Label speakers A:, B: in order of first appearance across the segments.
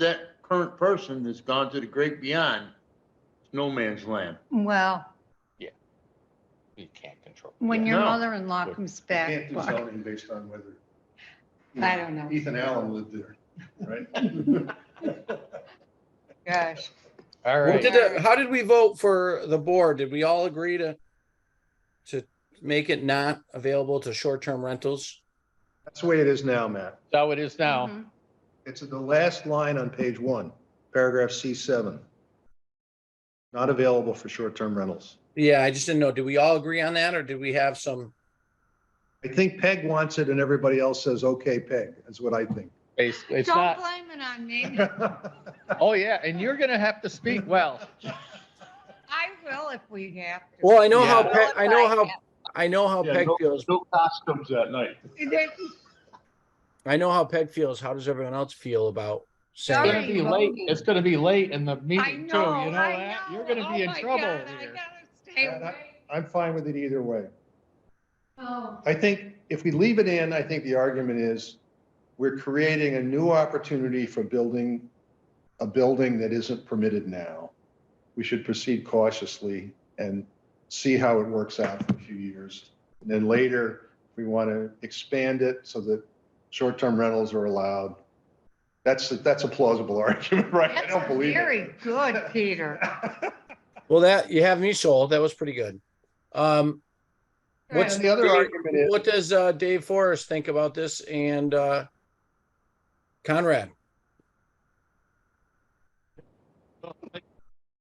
A: that current person that's gone to the great beyond, it's no man's land.
B: Well,
C: You can't control.
B: when your
A: No.
B: mother-in-law comes
D: You
B: back,
D: Can't do
B: well,
D: zoning based on whether. you
B: I don't know.
D: Ethan Allen lived there, right?
B: gosh,
C: All
E: What
C: right.
E: did, it- how did we vote for the board? Did we all agree to, to make it not available to short-term rentals?
D: That's the way it is now, Matt.
C: So it is now.
B: Mhm.
D: It's the last line on page one, paragraph C seven. Not available for short-term rentals.
E: Yeah, I just didn't know. Did we all agree on that or did we have some?
D: I think Peg wants it and everybody else says, okay, Peg, That's what I think.
C: It's it's
B: don't
C: not,
B: blame it on me.
C: oh yeah, and you're gonna have to speak well.
B: I will if we have to.
E: Well, I know how,
B: will
E: Pe-
B: if
E: I know how,
B: have
E: I know how
D: Yeah,
E: Peg
D: no-
E: feels.
D: No costumes that night.
B: to. Then-
E: I know how Peg feels. How does everyone else feel about
C: It's
E: saying?
B: Sorry.
C: gonna be late, it's gonna be late in the
B: I
C: meeting too, you
B: know,
C: know
B: I
C: that?
B: know.
C: You're gonna be
B: Oh
C: in
B: my
C: trouble
B: God, I
C: here.
B: gotta stay
D: Yeah, that-
B: away.
D: I'm fine with it either way.
B: Oh,
D: I think if we leave it in, I think the argument is we're creating a new opportunity for building a building that isn't permitted now. We should proceed cautiously and see how it works out for a few years. And then later, we want to expand it so that short-term rentals are allowed. That's, that's a plausible argument, right? I don't
B: That's
D: believe
B: very
D: it.
B: good, Peter.
E: Well, that, you have me sold. That was pretty good. Um, what's
D: And
B: Good.
D: the other argument is.
E: what does, uh, Dave Forrest think about this and, uh, Conrad?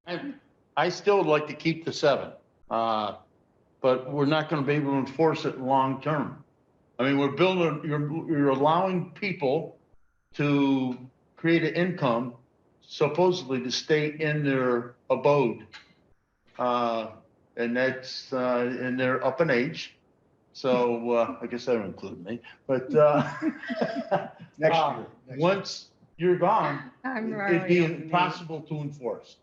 A: I, I still would like to keep the seven, uh, but we're not gonna be able to enforce it long-term. I mean, we're building, you're, you're allowing people to create an income supposedly to stay in their abode. Uh, and that's, uh, and they're up in age, so, uh, I guess that would include me, but, uh,
D: Next
A: Uh,
D: year. next year.
A: once you're gone,
B: I'm
A: It'd be
B: already on mute.
A: impossible to enforce.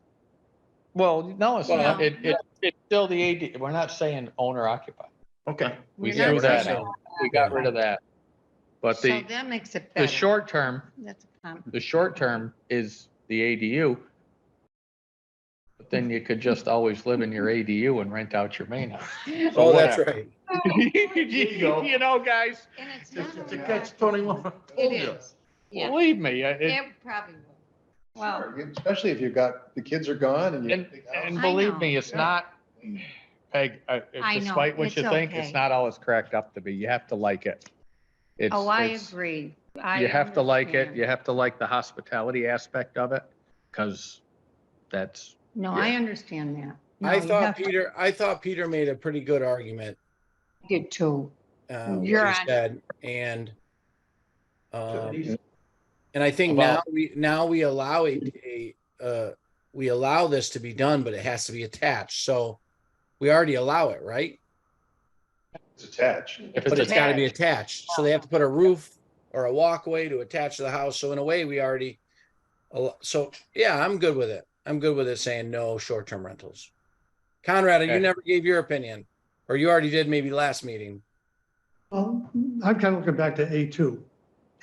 C: Well, no, it's
E: Well,
C: not. It, it, it's still the AD, we're not saying owner occupied.
A: Okay.
C: We
B: You're not
C: threw that
B: saying
C: out.
D: Oh,
C: We got rid of that. But
B: So
C: the,
B: that makes it better.
C: the short term,
B: That's a com-
C: the short term is the ADU. But then you could just always live in your ADU and rent out your main house.
E: Oh, that's
C: whatever.
E: right.
A: you go.
C: You know, guys,
B: And it's not.
A: It's it's a
B: allowed.
A: catch twenty-one.
B: It is. Yeah,
C: believe me, I- it,
B: it probably will. Well.
D: Sure, Especially if you've got, the kids are gone and you.
C: And, and
B: I
C: believe
B: know.
C: me, it's
D: Yeah.
C: not, Peg, I-
B: I know.
C: despite what
B: It's
C: you think, it's
B: okay.
C: not all it's cracked up to be. You have to like it. It's-
B: Oh, I
C: it's-
B: agree.
C: You have to like it. You have to like the hospitality aspect of it, because that's,
B: No, I understand that. No,
E: I
B: you have
E: thought
B: to-
E: Peter, I thought Peter made a pretty good argument.
B: I Did too.
E: uh, what
B: You're
E: he
B: on.
E: said, and um,
D: Yeah.
E: and I think now
C: About-
E: we, now we allow a, a, uh, we allow this to be done, but it has to be attached, so we already allow it, right?
D: It's attached.
C: if
E: But
C: it's,
E: it's
C: a-
E: gotta be attached, so they have to put a roof or a walkway to attach to the house, so in a way, we already al- so, yeah, I'm good with it. I'm good with it saying no short-term rentals. Conrad, you
C: Okay.
E: never gave your opinion, or you already did maybe last meeting.
F: Well, I'm kind of looking back to A2.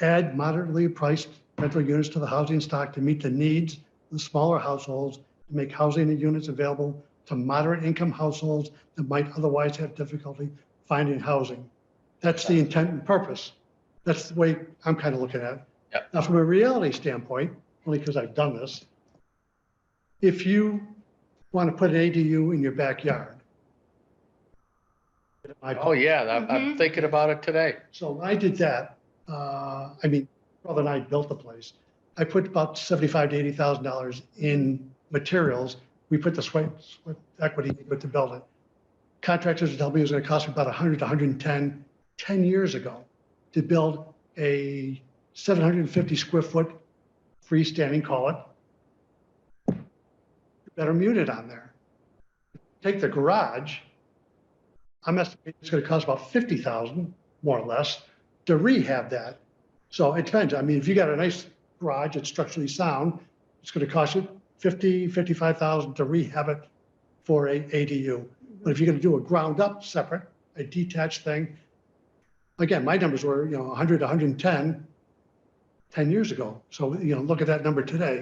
F: Add moderately priced rental units to the housing stock to meet the needs of the smaller households, to make housing units available to moderate income households that might otherwise have difficulty finding housing. That's the intent and purpose. That's the way I'm kind of looking at it.
C: Yep.
F: Now, from a reality standpoint, only because I've done this, if you want to put an ADU in your backyard, I-
C: oh, yeah, I'm, I'm
B: Mhm.
C: thinking about it today.
F: so I did that. Uh, I mean, brother and I built the place. I put about seventy-five to eighty thousand dollars in materials. We put the sweat, sweat equity with the building. Contractors told me it was gonna cost me about a hundred to 110 10 years ago to build a seven hundred and fifty square foot freestanding, call it. Better mute it on there. Take the garage. I'm estimating it's gonna cost about fifty thousand more or less, to rehab that. So it depends. I mean, if you got a nice garage, it's structurally sound, it's gonna cost you fifty, fifty-five thousand to rehab it for a ADU. But if you're gonna do a ground up separate, a detached thing, again, my numbers were, you know, hundred, hundred and ten. ten years ago. So, you know, look at that number today.